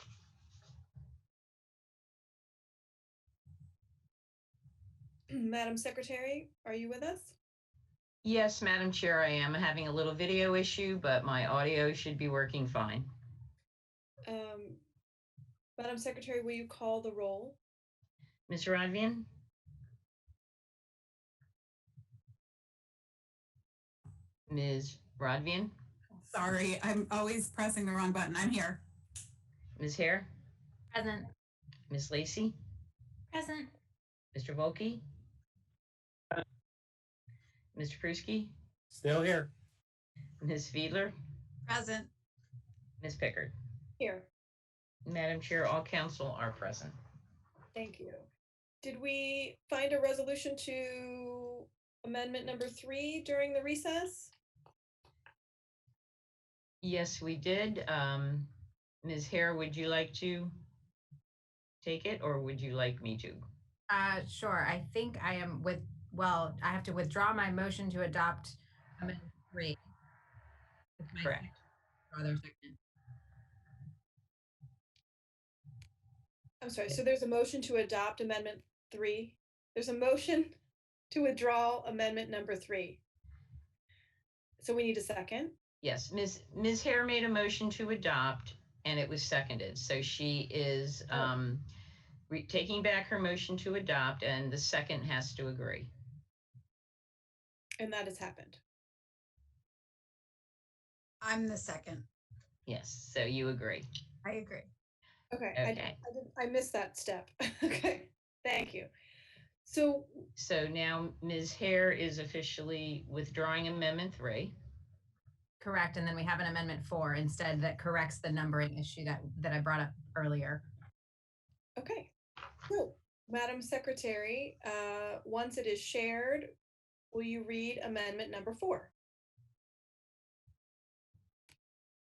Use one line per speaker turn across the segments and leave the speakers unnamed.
Madam Secretary, are you with us?
Yes, Madam Chair, I am having a little video issue, but my audio should be working fine.
Um, Madam Secretary, will you call the roll?
Ms. Rodvian? Ms. Rodvian?
Sorry, I'm always pressing the wrong button. I'm here.
Ms. Hare?
Present.
Ms. Lacy?
Present.
Mr. Volkey? Mr. Pruski?
Still here.
Ms. Fiedler?
Present.
Ms. Pickard?
Here,
Madam Chair, all council are present.
thank you. Did we find a resolution to amendment number three during the recess?
Yes, we did. Um, Ms. Hare, would you like to take it or would you like me to?
Uh, sure. I think I am with, well, I have to withdraw my motion to adopt amendment three. With my
Correct.
second- Other second.
I'm sorry, so there's a motion to adopt amendment three. There's a motion to withdraw amendment number three. So we need a second.
Yes, Ms. Ms. Hare made a motion to adopt and it was seconded. So she is
Oh.
um, re- taking back her motion to adopt and the second has to agree.
And that has happened.
I'm the second.
Yes, so you agree.
I agree.
Okay, I,
Okay,
I didn't- I missed that step. Okay, thank you. So
so now Ms. Hare is officially withdrawing Amendment 3.
Correct. And then we have an amendment four instead that corrects the numbering issue that, that I brought up earlier.
Okay, so, Madam Secretary, uh, once it is shared, will you read amendment number four?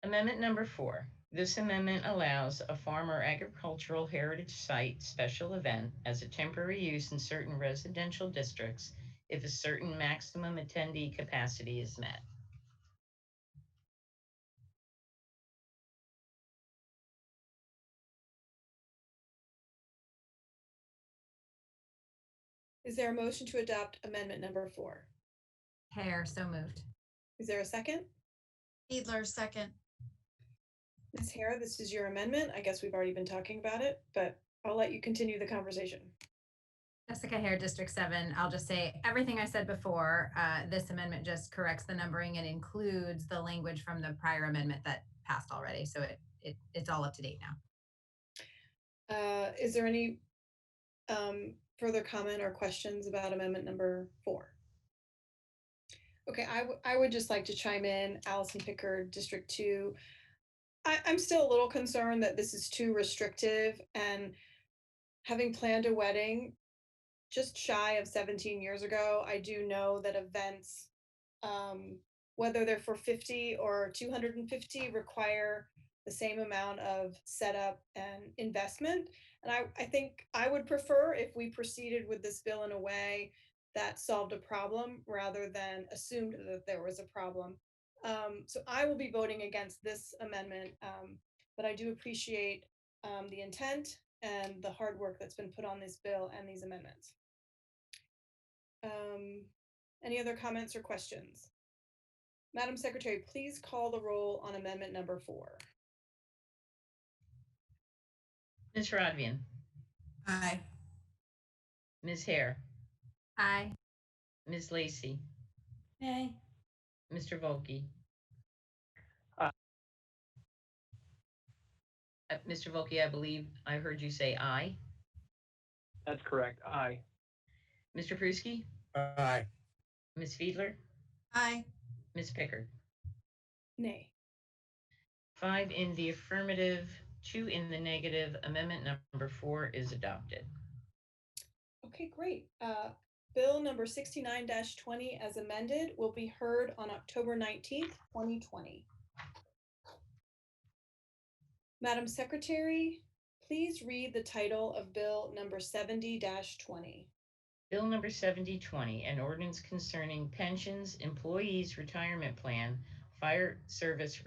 Amendment number four. This amendment allows a farm or agricultural heritage site special event as a temporary use in certain residential districts if a certain maximum attendee capacity is met.
Is there a motion to adopt amendment number four?
Hair, so moved.
Is there a second?
Fiedler, second.
Ms. Hare, this is your amendment. I guess we've already been talking about it, but I'll let you continue the conversation.
Jessica Hare, District Seven. I'll just say everything I said before. Uh, this amendment just corrects the numbering and includes the language from the prior amendment that passed already. So it, it, it's all up to date now.
Uh, is there any, um, further comment or questions about amendment number four? Okay, I, w- I would just like to chime in, Allison Pickard, District Two. I, I'm still a little concerned that this is too restrictive and having planned a wedding just shy of seventeen years ago, I do know that events, um, whether they're for fifty or two hundred and fifty, require the same amount of setup and investment. And I, I think I would prefer if we proceeded with this bill in a way that solved a problem rather than assumed that there was a problem. Um, so I will be voting against this amendment, um, but I do appreciate um, the intent and the hard work that's been put on this bill and these amendments. Um, any other comments or questions? Madam Secretary, please call the roll on amendment number four.
Ms. Rodvian,
Aye.
Ms. Hare,
Aye.
Ms. Lacy,
Aye.
Mr. Volkey.
Aye.
Uh, Mr. Volkey, I believe I heard you say aye.
That's correct. Aye.
Mr. Pruski,
Aye.
Ms. Fiedler,
Aye.
Ms. Pickard.
Nay.
Five in the affirmative, two in the negative. Amendment number four is adopted.
Okay, great. Uh, Bill number sixty-nine twenty as amended will be heard on October nineteenth, twenty twenty. Madam Secretary, please read the title of Bill number seventy twenty.
Bill number 7020, an ordinance concerning pensions, employees' retirement plan, fire service